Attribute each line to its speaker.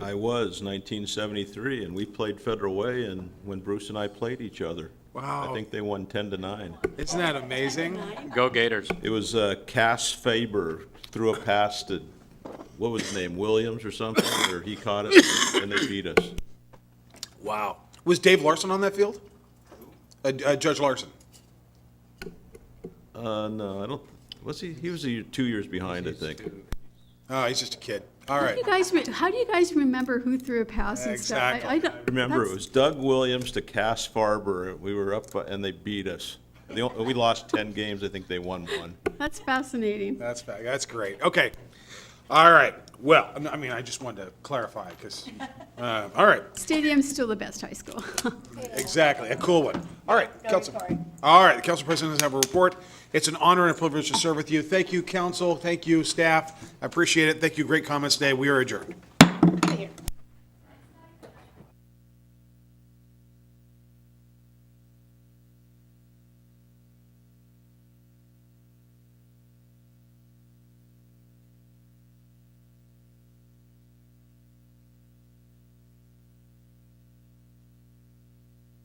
Speaker 1: I was, 1973, and we played Federal Way, and when Bruce and I played each other. I
Speaker 2: Wow.
Speaker 1: think they won 10 to 9.
Speaker 2: Isn't that amazing?
Speaker 3: Go Gators.
Speaker 1: It was uh, Cass Faber threw a pass to, what was his name, Williams or something, or he caught it, and they beat us.
Speaker 2: Wow. Was Dave Larson on that field? Uh, uh, Judge Larson.
Speaker 1: Uh, no, I don't, was he, he was a year- two years behind, I think.
Speaker 2: Oh, he's just a kid. All
Speaker 4: How do
Speaker 2: right.
Speaker 4: you guys, re- how do you guys remember who threw a pass and stuff? I- I don't-
Speaker 1: Remember, it
Speaker 4: that's-
Speaker 1: was Doug Williams to Cass Faber, we were up, uh, and they beat us. They o- We lost 10 games, I think they won one.
Speaker 4: That's fascinating.
Speaker 2: That's fa- that's great. Okay. All right. Well, I mean, I just wanted to clarify because. Uh, all right.
Speaker 4: Stadium's still the best high school.
Speaker 2: Exactly. A cool one. All right, Council.
Speaker 5: Cory.
Speaker 2: All right, the Council President does have a report. It's an honor and a privilege to serve with you. Thank you, Council. Thank you, staff. I appreciate it. Thank you. Great comments today. We are adjourned.
Speaker 5: Right here.